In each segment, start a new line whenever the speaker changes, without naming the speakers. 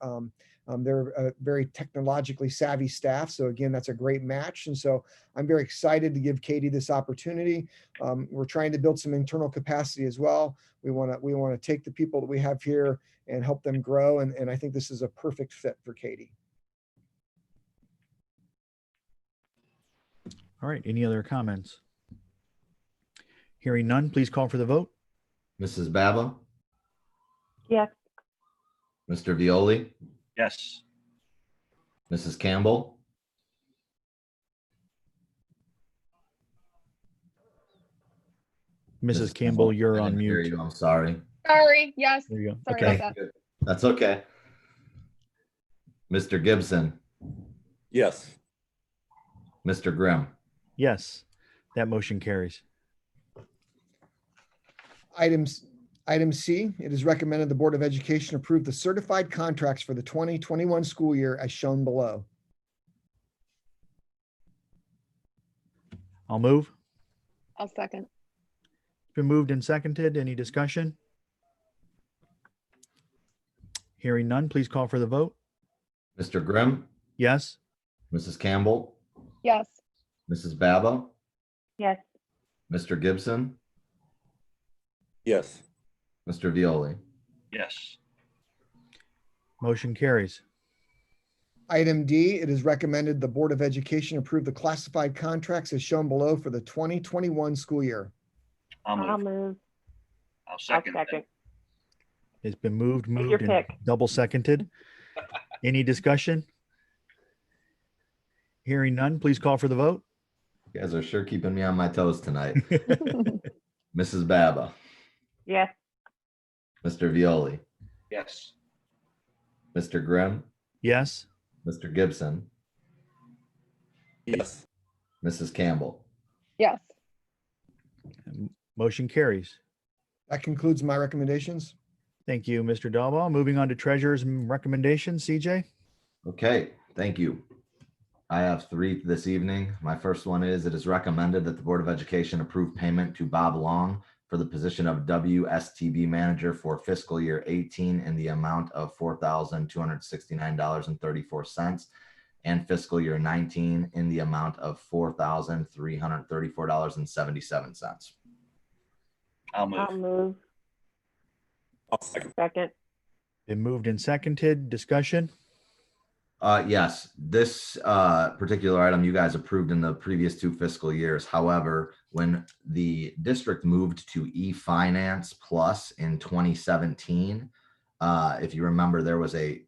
Um, um, they're a very technologically savvy staff. So again, that's a great match. And so I'm very excited to give Katie this opportunity. Um, we're trying to build some internal capacity as well. We want to we want to take the people that we have here and help them grow. And, and I think this is a perfect fit for Katie.
All right, any other comments? Hearing none, please call for the vote.
Mrs. Baba?
Yes.
Mr. Violi?
Yes.
Mrs. Campbell?
Mrs. Campbell, you're
I
on
didn't hear
mute.
you, I'm sorry.
Sorry, yes,
There you go.
sorry
Okay,
Thank
about that.
you. That's okay. Mr. Gibson?
Yes.
Mr. Grimm?
yes, that motion carries.
Items, item C, it is recommended the Board of Education approve the certified contracts for the 2021 school year as shown below.
I'll move.
I'll second.
It's Been moved and seconded. Any discussion? Hearing none, please call for the vote.
Mr. Grimm?
Yes,
Mrs. Campbell?
Yes.
Mrs. Baba?
Yes.
Mr. Gibson?
Yes.
Mr. Violi?
Yes.
motion carries.
Item D, it is recommended the Board of Education approve the classified contracts as shown below for the 2021 school year.
I'll
I'll
move.
move.
I'll
I'll
second. that.
second.
It's been moved,
your
moved, and
pick.
double seconded. Any discussion? Hearing none, please call for the vote.
You guys are sure keeping me on my toes tonight. Mrs. Baba?
Yes,
Mr. Violi?
Yes.
Mr. Grimm?
Yes,
Mr. Gibson?
Yes.
Mrs. Campbell?
Yes.
motion carries.
That concludes my recommendations.
Thank you, Mr. Dalbaugh. Moving on to treasurer's recommendations, CJ.
Okay, thank you. I have three this evening. My first one is it is recommended that the Board of Education approve payment to Bob Long for the position of WSTB manager for fiscal year 18 in the amount of $4,269.34 and fiscal year 19 in the amount of $4,334.77.
I'll
I'll
move.
move.
I'll second.
Second.
Been moved and seconded. Discussion?
Uh, yes, this uh, particular item you guys approved in the previous two fiscal years. However, when the district moved to e-finance plus in 2017, uh, if you remember, there was a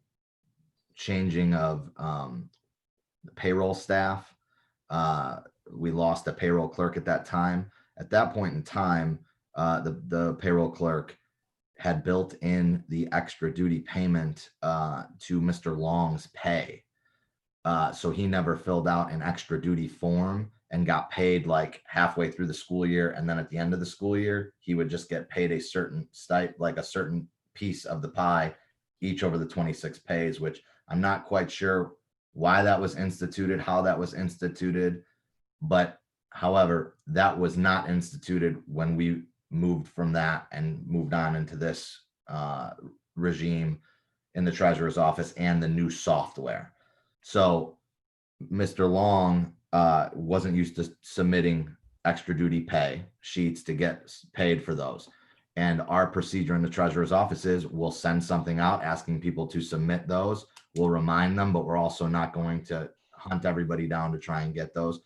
changing of um, the payroll staff. Uh, we lost a payroll clerk at that time. At that point in time, uh, the, the payroll clerk had built in the extra duty payment uh, to Mr. Long's pay. Uh, so he never filled out an extra duty form and got paid like halfway through the school year. And then at the end of the school year, he would just get paid a certain stipend, like a certain piece of the pie each over the 26 pays, which I'm not quite sure why that was instituted, how that was instituted. But however, that was not instituted when we moved from that and moved on into this uh, regime in the treasurer's office and the new software. So Mr. Long uh, wasn't used to submitting extra duty pay sheets to get s- paid for those. And our procedure in the treasurer's office is we'll send something out asking people to submit those. We'll remind them, but we're also not going to hunt everybody down to try and get those.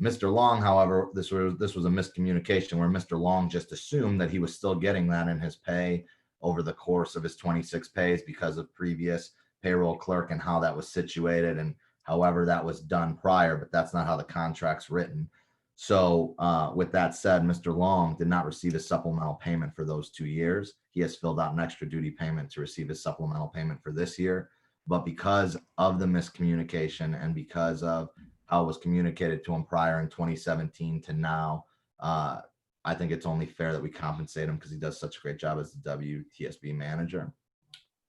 Mr. Long, however, this was, this was a miscommunication where Mr. Long just assumed that he was still getting that in his pay over the course of his 26 pays because of previous payroll clerk and how that was situated and however that was done prior, but that's not how the contract's written. So uh, with that said, Mr. Long did not receive a supplemental payment for those two years. He has filled out an extra duty payment to receive his supplemental payment for this year. But because of the miscommunication and because of how it uh, was communicated to him prior in 2017 to now. Uh, I think it's only fair that we compensate him because he does such a great job as the WTSB manager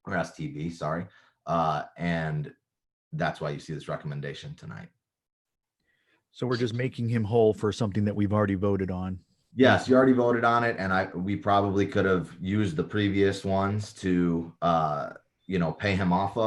or STB, sorry. Uh, and that's why you see this recommendation tonight.
So we're just making him whole for something that we've already voted on.
Yes, you already voted on it, and I we probably could have used the previous ones to uh, you know pay him off of.